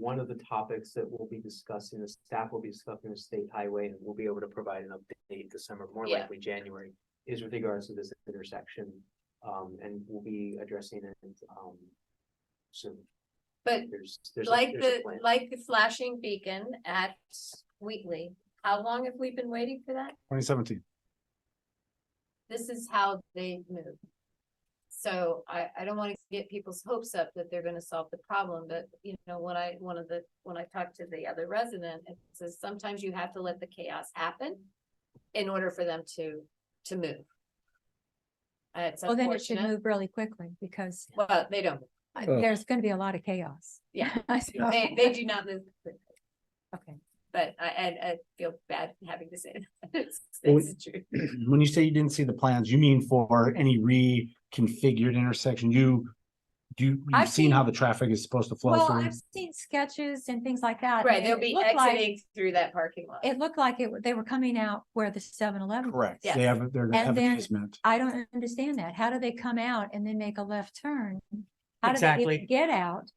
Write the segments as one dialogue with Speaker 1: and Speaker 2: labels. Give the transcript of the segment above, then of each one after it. Speaker 1: one of the topics that we'll be discussing, the staff will be discussing the state highway, and we'll be able to provide an update December, more
Speaker 2: Yeah.
Speaker 1: likely January, is with regards to this intersection, um, and we'll be addressing it, um, soon.
Speaker 2: But
Speaker 1: There's, there's. a-
Speaker 2: like
Speaker 1: there's a
Speaker 2: the,
Speaker 1: plan.
Speaker 2: like the flashing beacon at Wheatley, how long have we been waiting for that?
Speaker 3: twenty seventeen.
Speaker 2: This is how they move. So I, I don't wanna get people's hopes up that they're gonna solve the problem, but you know, when I, one of the, when I talked to the other resident, it says sometimes you have to let the chaos happen in order for them to, to move. Uh, It's
Speaker 4: Well, then it should
Speaker 2: unfortunate,
Speaker 4: move really quickly because
Speaker 2: well, they don't,
Speaker 4: uh,
Speaker 3: Oh.
Speaker 4: there's gonna be a lot of chaos.
Speaker 2: yeah,
Speaker 4: So-
Speaker 2: they, they do not move quickly.
Speaker 4: Okay,
Speaker 2: But I, and I feel bad having to say that. It's,
Speaker 3: Well,
Speaker 2: it's the truth.
Speaker 3: When you say you didn't see the plans, you mean for any reconfigured intersection, you, you, you've
Speaker 4: I've
Speaker 3: seen
Speaker 4: seen-
Speaker 3: how the traffic is supposed to flow
Speaker 4: well,
Speaker 3: through?
Speaker 4: I've seen sketches and things like that.
Speaker 2: Right,
Speaker 4: and
Speaker 2: they'll
Speaker 4: it
Speaker 2: be
Speaker 4: looked like-
Speaker 2: exiting through that parking lot.
Speaker 4: It looked like it, w- they were coming out where the seven eleven.
Speaker 3: Correct.
Speaker 2: yes.
Speaker 3: They have, they're gonna
Speaker 4: And
Speaker 3: have an
Speaker 4: then-
Speaker 3: easement.
Speaker 4: I don't understand that. How do they come out and then make a left turn? How do they
Speaker 1: Exactly.
Speaker 4: even get out?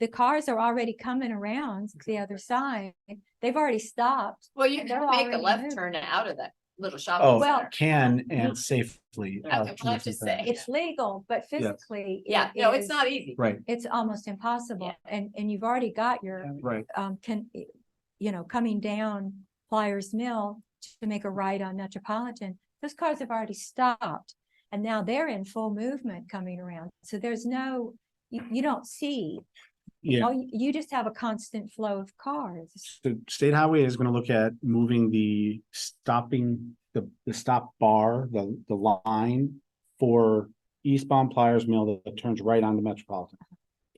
Speaker 4: The cars are already coming around the other side. They've already stopped.
Speaker 2: Well, you
Speaker 4: and they're
Speaker 2: can make a
Speaker 4: already
Speaker 2: left
Speaker 4: moved.
Speaker 2: turn out of that little
Speaker 3: Oh.
Speaker 2: shopping
Speaker 4: Well-
Speaker 2: center.
Speaker 3: Can and safely. uh,
Speaker 2: Okay,
Speaker 3: are
Speaker 2: well,
Speaker 3: two
Speaker 2: I have to
Speaker 3: different
Speaker 2: say-
Speaker 3: things.
Speaker 4: It's legal, but physically. it
Speaker 2: Yeah, no, it's
Speaker 4: is-
Speaker 2: not easy.
Speaker 3: Right,
Speaker 4: It's almost impossible. And, and you've already got your
Speaker 3: right.
Speaker 4: um, can, you know, coming down Flyers Mill to make a right on Metropolitan, those cars have already stopped. And now they're in full movement coming around. So there's no, you, you don't see,
Speaker 3: Yeah,
Speaker 4: all you, you just have a constant flow of cars.
Speaker 3: the state highway is gonna look at moving the stopping, the, the stop bar, the, the line for eastbound Pliers Mill that turns right onto Metropolitan.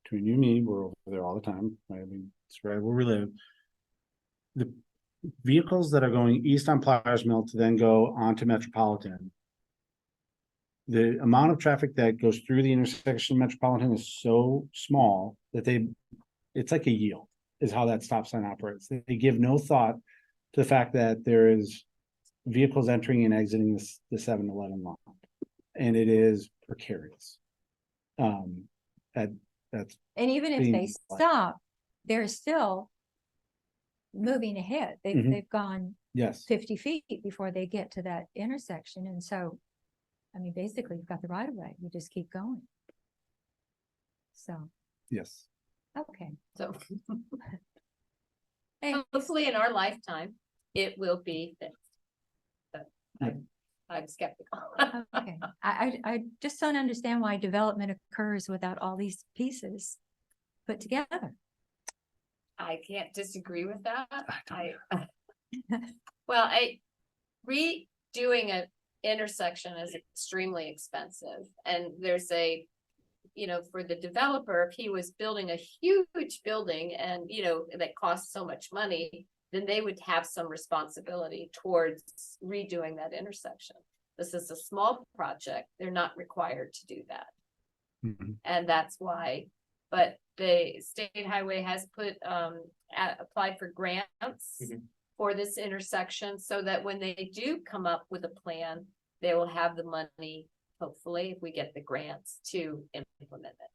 Speaker 3: Between you and me, we're over there all the time, right? I mean, it's right where we live. The vehicles that are going east on Pliers Mill to then go onto Metropolitan. The amount of traffic that goes through the intersection of Metropolitan is so small that they, it's like a yield is how that stop sign operates. They they give no thought to the fact that there is vehicles entering and exiting this, the 7-Eleven lot. And it is precarious. Um, that, that's,
Speaker 4: And even if
Speaker 3: Being
Speaker 4: they
Speaker 3: like-
Speaker 4: stop, they're still moving ahead. They've,
Speaker 3: Mhm.
Speaker 4: they've gone
Speaker 3: yes,
Speaker 4: fifty feet before they get to that intersection. And so, I mean, basically you've got the right of way. You just keep going. So,
Speaker 3: yes.
Speaker 4: okay.
Speaker 2: So
Speaker 4: Hey,
Speaker 2: hopefully in our lifetime, it will be fixed. But I'm- I'm skeptical.
Speaker 4: Okay, I, I, I just don't understand why development occurs without all these pieces put together.
Speaker 2: I can't disagree with that.
Speaker 3: I don't
Speaker 2: I, well, I, redoing an intersection is extremely expensive and there's a. You know, for the developer, if he was building a huge building and, you know, that costs so much money. Then they would have some responsibility towards redoing that intersection. This is a small project, they're not required to do that.
Speaker 3: Mhm.
Speaker 2: And that's why, but the state highway has put, um, a- applied for grants.
Speaker 5: Mm-hmm.
Speaker 1: Mhm.
Speaker 2: For this intersection, so that when they do come up with a plan, they will have the money, hopefully, if we get the grants to implement it.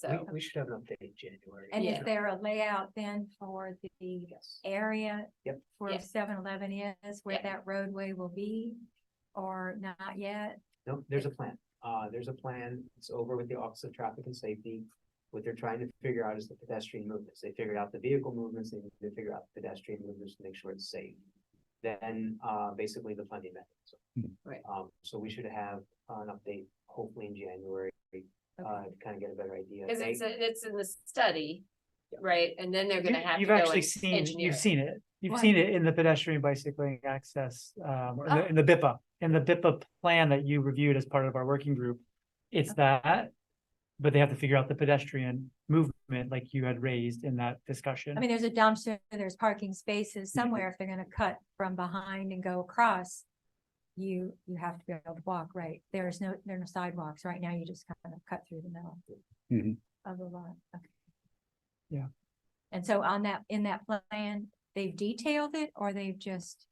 Speaker 2: So,
Speaker 1: We, we should have an update in January.
Speaker 4: And
Speaker 2: Yeah.
Speaker 4: is there a layout then for the
Speaker 1: Yes.
Speaker 4: area?
Speaker 1: Yep.
Speaker 4: Where
Speaker 2: Yeah.
Speaker 4: seven eleven is, where
Speaker 2: Yeah.
Speaker 4: that roadway will be, or not yet?
Speaker 1: No, there's a plan. Uh, there's a plan. It's over with the Office of Traffic and Safety. What they're trying to figure out is the pedestrian movements. They figured out the vehicle movements. They need to figure out the pedestrian movements to make sure it's safe. Then, uh, basically the funding mechanism.
Speaker 2: Hmm. Right.
Speaker 1: Um, so we should have an update hopefully in January, uh,
Speaker 4: Okay.
Speaker 1: to kind of get a better idea.
Speaker 2: cause it's,
Speaker 1: They-
Speaker 2: a- it's in the study, right, and then they're gonna
Speaker 5: You-
Speaker 2: have to
Speaker 5: You've
Speaker 2: go
Speaker 5: actually
Speaker 2: and
Speaker 5: seen,
Speaker 2: engineer
Speaker 5: you've
Speaker 2: it.
Speaker 5: seen it. You've
Speaker 4: What?
Speaker 5: seen it in the pedestrian bicycling access, um, or in
Speaker 2: Oh.
Speaker 5: the- in the BIPA, in the BIPA plan that you reviewed as part of our working group. It's that, but they have to figure out the pedestrian movement like you had raised in that discussion.
Speaker 4: I mean, there's a dumpster, there's parking spaces somewhere. If they're gonna cut from behind and go across, you, you have to be able to walk, right? There's no, there are no sidewalks. Right now, you just kind of cut through the middle.
Speaker 3: Mhm.
Speaker 4: Of the lot, okay.
Speaker 5: Yeah.
Speaker 4: And so on that, in that plan, they've detailed it or they've just,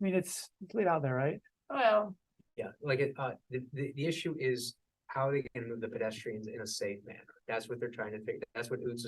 Speaker 5: I mean, it's it's laid out there, right?
Speaker 2: Well,
Speaker 1: Yeah, like, it, uh, the, the, the issue is how they can move the pedestrians in a safe manner. That's what they're trying to figure, that's what Utz is